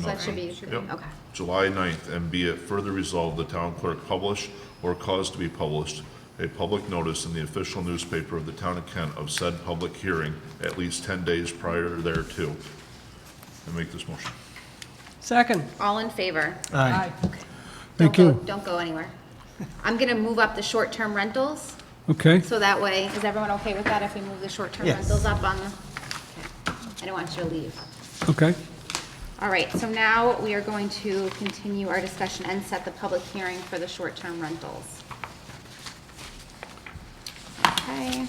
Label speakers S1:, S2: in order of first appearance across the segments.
S1: So that should be,
S2: Yep.
S1: okay.
S2: July 9th, and be it further resolved, the town clerk publish or cause to be published a public notice in the official newspaper of the town of Kent of said public hearing at least 10 days prior thereto. And make this motion.
S3: Second.
S1: All in favor?
S3: Aye.
S1: Don't
S4: Thank
S1: go-
S4: you.
S1: Don't go anywhere. I'm going to move up the short-term rentals,
S4: Okay,
S1: so that way, is everyone okay with that if we move the short-term
S3: Yes.
S1: rentals up on the? okay. I don't want you to leave.
S4: okay.
S1: All right, so now we are going to continue our discussion and set the public hearing for the short-term rentals. Okay.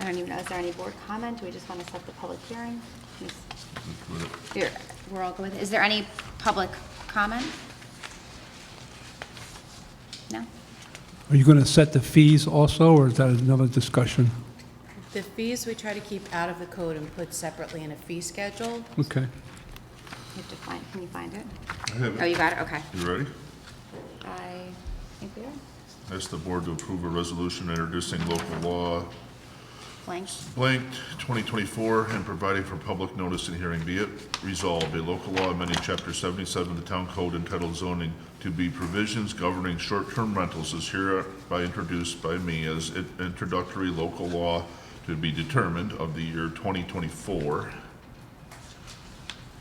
S1: I don't even know, is there any board comment? Do we just want to set the public hearing? Miss- You're- We're all good with it. Is there any public comment? No?
S4: Are you going to set the fees also, or is that another discussion?
S5: The fees, we try to keep out of the code and put separately in a fee schedule.
S4: Okay.
S1: You have to find, can you find it?
S2: have it.
S1: Oh, you got it, okay.
S2: You ready?
S1: I think we are
S2: Ask the board to approve a resolution introducing local law
S1: blank.
S2: blank 2024 and providing for public notice and hearing be it resolved, a local law amending Chapter 77 of the Town Code entitled zoning to be provisions governing short-term rentals is hereby introduced by me as an introductory local law to be determined of the year 2024.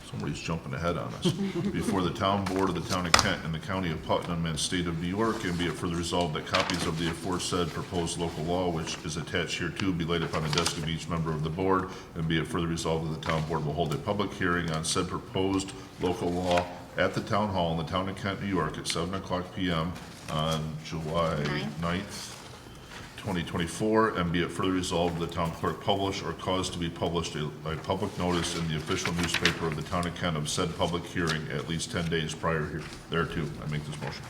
S2: Somebody's jumping ahead on us. Before the town board of the town of Kent and the county of Putnam and state of New York, and be it further resolved that copies of the aforesaid proposed local law, which is attached here to, be laid upon the desk of each member of the board, and be it further resolved that the town board will hold a public hearing on said proposed local law at the town hall in the town of Kent, New York, at seven o'clock PM on July
S1: Ninth.
S2: 9th, 2024, and be it further resolved, the town clerk publish or cause to be published a, a public notice in the official newspaper of the town of Kent of said public hearing at least 10 days prior here- thereto. I make this motion.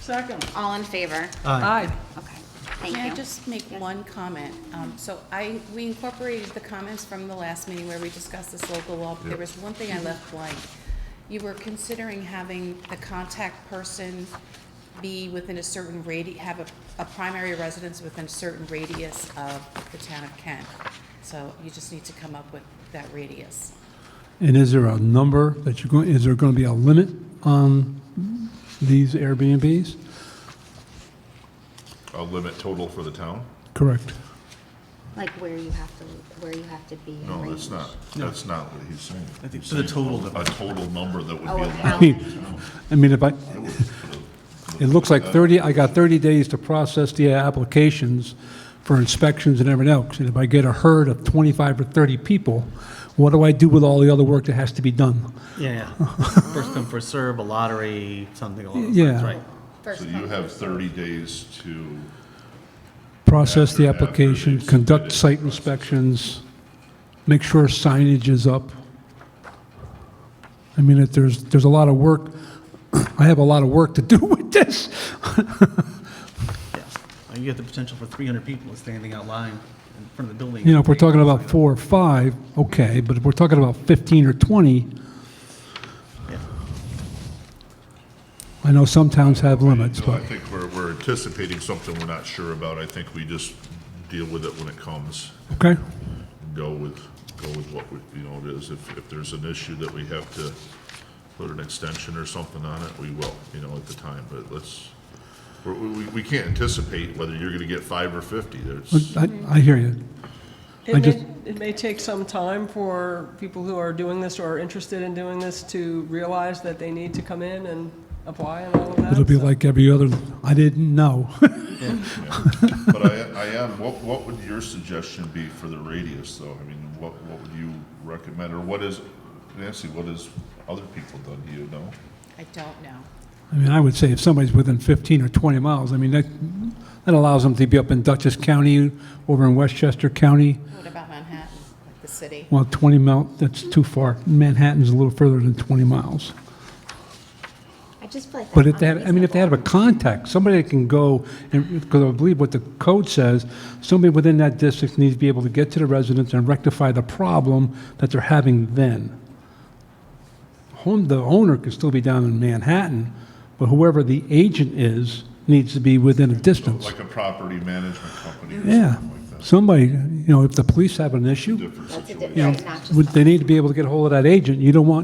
S3: Second.
S1: All in favor?
S3: Aye.
S1: Okay, thank you.
S5: May I just make one comment? Um, So I, we incorporated the comments from the last meeting where we discussed this local law. but There was one thing I left blank. You were considering having the contact person be within a certain radi, have a, a primary residence within a certain radius of the town of Kent. So you just need to come up with that radius.
S4: And is there a number that you're going, is there going to be a limit on these Airbnbs?
S2: A limit total for the town?
S4: Correct.
S1: Like where you have to, where you have to be. in
S2: No, that's
S1: range.
S2: not, that's not what he's saying.
S6: I think
S2: He's
S6: for the
S2: saying
S6: total
S2: A total number that would be
S1: Oh,
S2: allowed.
S4: I mean, I mean, if I, it looks like 30, I got 30 days to process the applications for inspections and everything else. And if I get a herd of 25 or 30 people, what do I do with all the other work that has to be done?
S6: Yeah, yeah. First come, first serve, a lottery, something along those lines,
S4: Yeah.
S6: right?
S1: First
S2: So you
S1: come,
S2: have
S1: first
S2: 30 days to,
S4: process the
S2: After- after
S4: application,
S2: they've
S4: conduct
S2: submitted.
S4: site inspections, make sure signage is up. I mean, if there's, there's a lot of work, I have a lot of work to do with this.
S6: Yeah. Uh, You get the potential for 300 people standing out line in front of the building.
S4: You know, if we're talking about four or five, okay, but if we're talking about 15 or 20,
S6: Yeah.
S4: I know some towns have limits,
S2: no, I
S4: but,
S2: think we're, we're anticipating something we're not sure about. I think we just deal with it when it comes.
S4: okay?
S2: go with, go with what we, you know, it is. If, if there's an issue that we have to put an extension or something on it, we will, you know, at the time, but let's, we, we, we can't anticipate whether you're gonna get five or fifty, there's,
S4: I, I hear you. I
S3: It
S4: just-
S3: may, it may take some time for people who are doing this or are interested in doing this to realize that they need to come in and apply and all of that.
S4: It'll be
S3: so-
S4: like every other, I didn't know.
S2: but I, I am, what, what would your suggestion be for the radius, though? I mean, what, what would you recommend, or what is, Nancy, what has other people done, do you know?
S5: I don't know.
S4: I mean, I would say if somebody's within 15 or 20 miles, I mean, that, that allows them to be up in Dutchess County, over in Westchester County.
S5: What about Manhattan, like the city?
S4: Well, 20 mile, that's too far. Manhattan's a little further than 20 miles.
S1: come. I just feel like.
S4: But
S1: that's
S4: if they, had- I mean, if they had a
S1: unreasonable.
S4: contact, somebody that can go, and, because I believe what the code says, somebody within that district needs to be able to get to the residents and rectify the problem that they're having then. Home, the owner can still be down in Manhattan, but whoever the agent is needs to be within a distance.
S2: Like a property management company or
S4: Yeah.
S2: something like that.
S4: somebody, you know, if the police have an issue,
S2: different
S1: That's a
S2: situation.
S1: di-
S4: you know,
S1: right, not just
S4: would- they need to be able to get a hold of that agent. You don't want